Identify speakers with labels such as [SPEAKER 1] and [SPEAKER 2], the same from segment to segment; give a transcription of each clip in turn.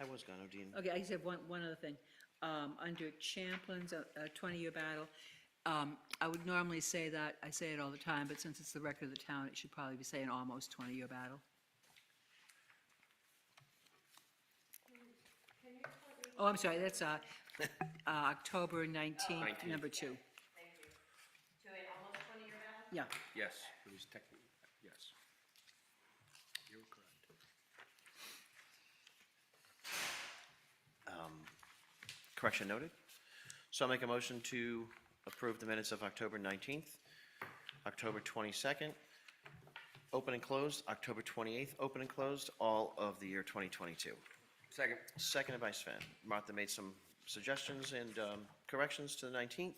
[SPEAKER 1] I was gonna, Dean.
[SPEAKER 2] Okay, I just have one, one other thing. Um, Under Champlin's uh, uh, 20-year battle, um, I would normally say that, I say it all the time, but since it's the record of the town, it should probably be saying almost 20-year battle. Oh, I'm sorry, that's uh, uh, October 19th, number two.
[SPEAKER 3] Thank you. To an almost 20-year battle?
[SPEAKER 2] Yeah,
[SPEAKER 4] Yes, it was technically, yes. You're correct.
[SPEAKER 1] Correction noted. So I'll make a motion to approve the minutes of October 19th, October 22nd, open and closed, October 28th, open and closed, all of the year 2022.
[SPEAKER 4] Second.
[SPEAKER 1] Seconded by Sven. Martha made some suggestions and um, corrections to the 19th.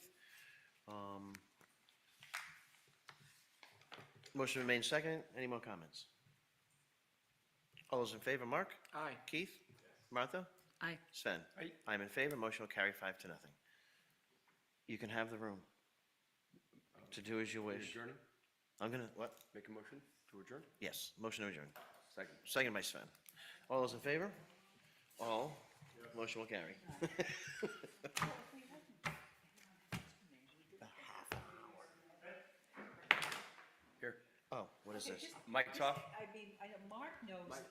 [SPEAKER 1] Um, Motion remains second. Any more comments? All those in favor, Mark?
[SPEAKER 4] Aye.
[SPEAKER 1] Keith? Martha?
[SPEAKER 2] I,
[SPEAKER 1] Sven?
[SPEAKER 4] Aye.
[SPEAKER 1] I'm in favor. Motion will carry five to nothing. You can have the room to do as you wish.
[SPEAKER 4] Adjourn,
[SPEAKER 1] I'm gonna, what?
[SPEAKER 4] make a motion to adjourn?
[SPEAKER 1] Yes, motion to adjourn.
[SPEAKER 4] Second.
[SPEAKER 1] Second by Sven. All those in favor? All. Motion will carry.
[SPEAKER 4] Here,
[SPEAKER 1] Oh, what is this?
[SPEAKER 4] mic's off.
[SPEAKER 1] Oh,
[SPEAKER 2] I mean, I know Mark knows